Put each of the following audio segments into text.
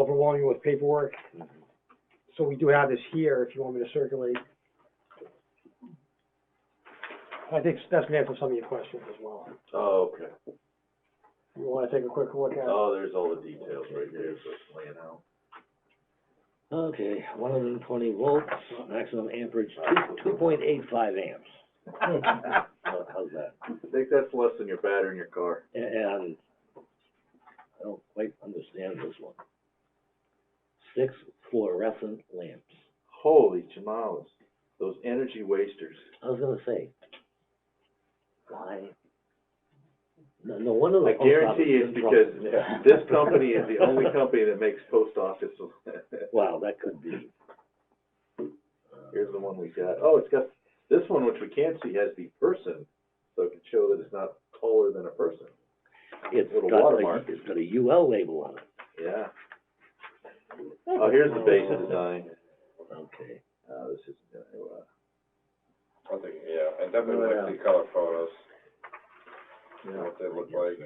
overwhelming with paperwork. So we do have this here, if you want me to circulate. I think that's gonna answer some of your questions as well. Oh, okay. You wanna take a quick look at it? Oh, there's all the details right there, so it's laying out. Okay, one hundred and twenty volts, maximum amperage, two, two point eight five amps. How- How's that? I think that's less than your battery in your car. A- And I don't quite understand this one. Six fluorescent lamps. Holy jamales, those energy wasters. I was gonna say, why? No, no wonder the I post office guarantee it's is in trouble. because this company is the only company that makes post office. Wow, that could be. Here's the one we got. Oh, it's got, this one, which we can't see, has the person, so it can show that it's not taller than a person. It's Little got a, watermark. it's got a UL label on it. Yeah. Oh, here's the base design. Okay. Uh, this is, uh, I think, yeah, and definitely like the color photos, yeah. what they look like.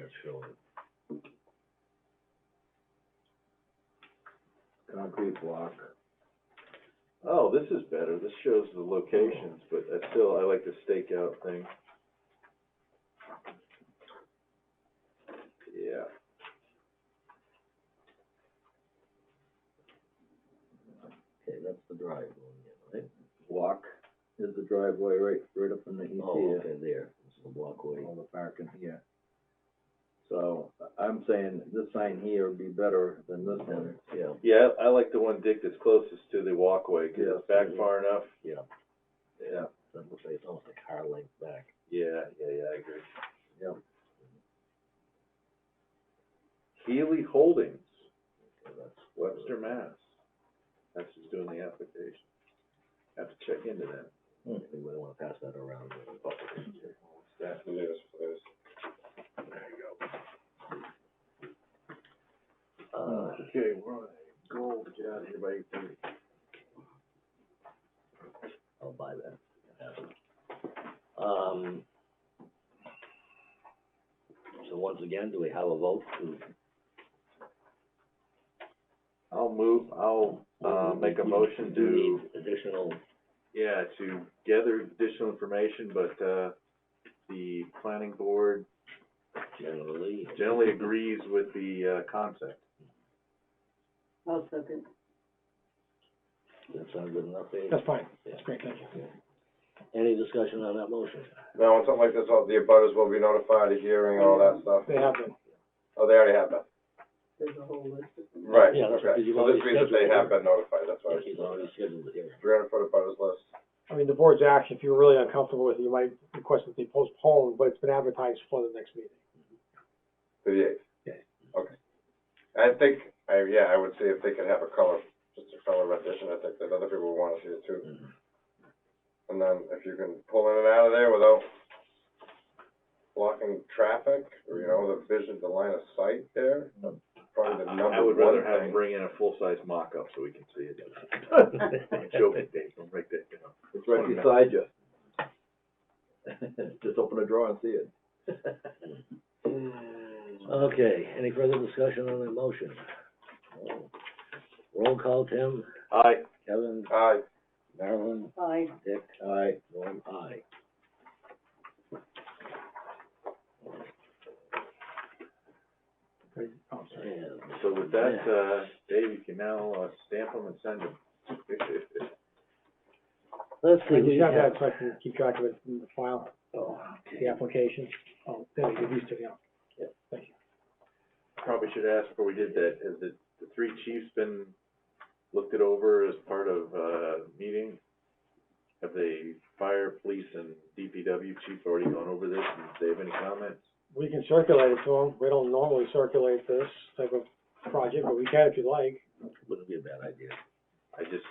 concrete block. Oh, this is better, this shows the locations, but I still, I like the stakeout thing. Yeah. Okay, that's the drive going in, right? Block is the driveway right, right up in the E Oh, okay, there, it's the walkway. the parking, yeah. So, I'm saying this sign here would be better than this Yeah, Yeah, I like the one, Dick, that's closest to the walkway, 'cause it's back far enough. yeah, Yeah. that looks like it's almost a car length back. Yeah, yeah, yeah, I agree. Yeah. Healy Holdings, Okay, that's- Webster, Mass. That's who's doing the application. Have to check into that. We wouldn't wanna pass that around. in public. That, Yes, please. Uh, okay, we're on a goal to get out of here by eight thirty. I'll buy that. Um, so once again, do we have a vote to? I'll move, I'll, uh, make a motion Do we to, need Additional, yeah, to gather additional information, but, uh, the planning board generally. generally agrees with the, uh, concept. I'll second. That sound good enough, Dave? That's fine, Yeah. that's great, thank you. Any discussion on that motion? Now, on something like this, all the abutters will be notified of hearing, all that stuff. They have been, Oh, they already have been. There's a whole list of them. Right, Yeah, that's because okay. you've So this already means that they scheduled have it. been notified, that's why. He's already scheduled the hearing. Three hundred foot abutters list. I mean, the board's action, if you're really uncomfortable with it, you might request that they postpone, but it's been advertised for the next meeting. To the eighth? Okay. I think, I, yeah, I would see if they could have a color, just a color rendition, I think that other people would wanna see it too. Mm-hmm. Mhm. And then if you can pull in and out of there without blocking traffic, or, you know, the vision, the line of sight there, that's probably Mm-hmm. the I- I number would rather one have them thing. bring in a full-size mock-up so we can see it. I'm joking, Dave, don't break that down. It's right beside you. Just open a drawer and see it. Mm. Okay, any further discussion on that motion? No. Roll call, Tim, Aye, Kevin, Aye. Marilyn, Aye. Dick. Aye. Norm, aye. Oh, sorry. And- so with that, uh, Dave, you can now, uh, stamp them and send them. Let's I see, we just have have. that so I can keep track of it in the file, Mm-hmm. Oh, the application. Oh, there, you used to, yeah. Probably should ask before we did that, has the, the three chiefs been, looked it over as part of, uh, meeting? Have the fire, police, and DPW chief already gone over this, and do they have any comments? We can circulate it to them. We don't normally circulate this type of project, but we can if you'd like. Wouldn't be a bad idea. I just,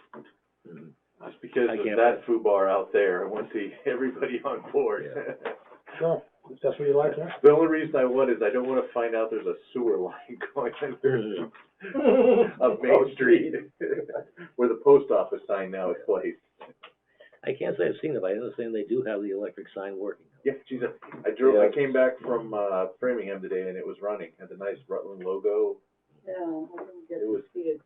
Mhm. just because I of can't- that foobar out there, I want to see everybody on board. Sure, if that's what you'd like, yeah. The only reason I would is I don't wanna find out there's a sewer line going under up Main Street, where the post office sign now is placed. I can't say I've seen it, but I understand they do have the electric sign working. Yeah, geez, I drove, I came back from, uh, Framingham today and it was running, had the nice Rutland logo, Yeah, I don't get It to was- see it, so